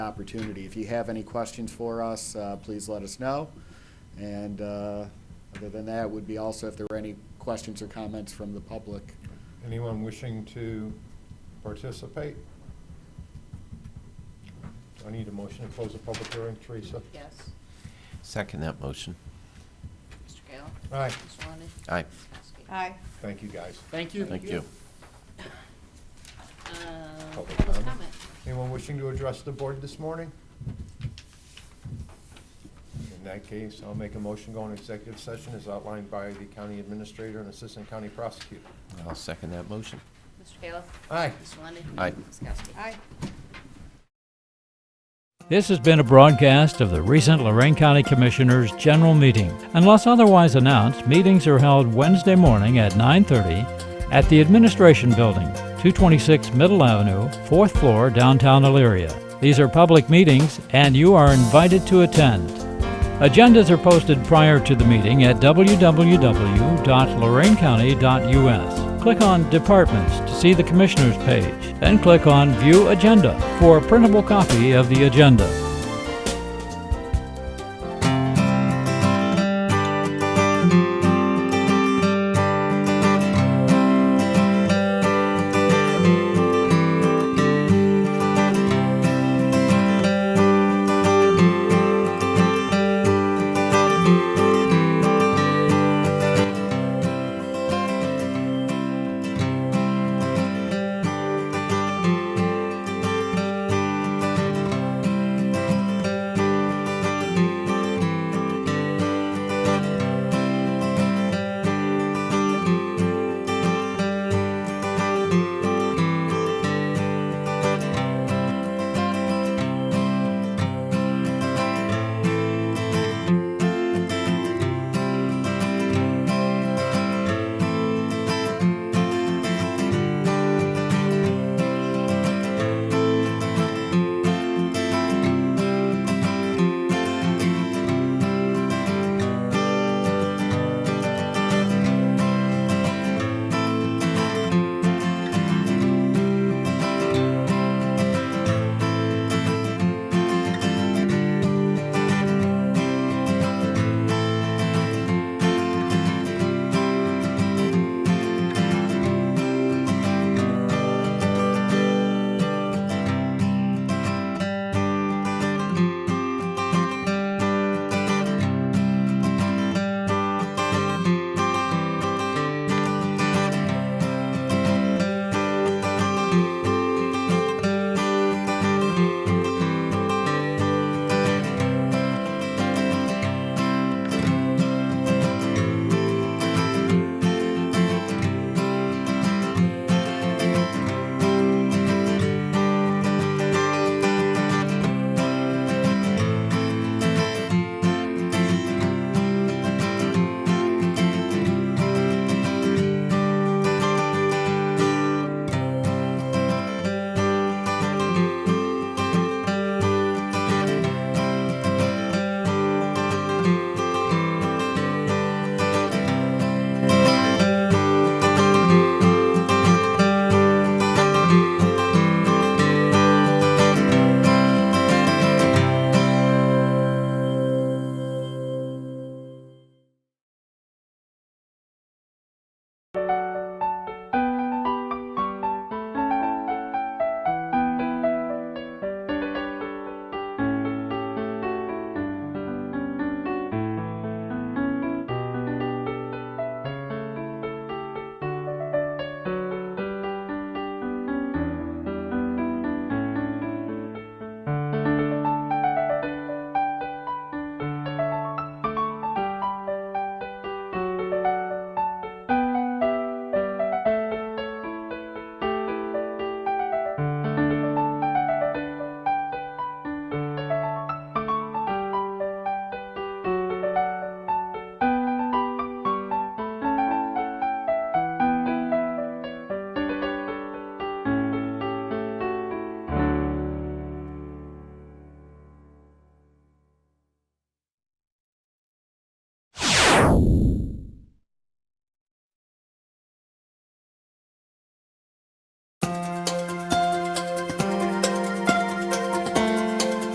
opportunity. If you have any questions for us, uh, please let us know. And uh, other than that, would be also if there were any questions or comments from the public. Anyone wishing to participate? I need a motion to close the public hearing, Teresa. Yes. Second that motion. Mr. Kayla? Aye. Mr. Lundey? Aye. Ms. Kowski? Aye. Thank you, guys. Thank you. Thank you. Uh, Public Public comment. comment? Anyone wishing to address the board this morning? In that case, I'll make a motion going to executive session as outlined by the county administrator and assistant county prosecutor. I'll second that motion. Mr. Kayla? Aye. Mr. Lundey? Aye. Ms. Kowski? Aye. This has been a broadcast of the recent Lorraine County Commissioners' General Meeting. Unless otherwise announced, meetings are held Wednesday morning at 9:30 at the Administration Building, 226 Middle Avenue, 4th floor, downtown Elyria. These are public meetings, and you are invited to attend. Agendas are posted prior to the meeting at www.lorainecounty.us. Click on Departments to see the Commissioners page, then click on View Agenda for a printable copy of the agenda.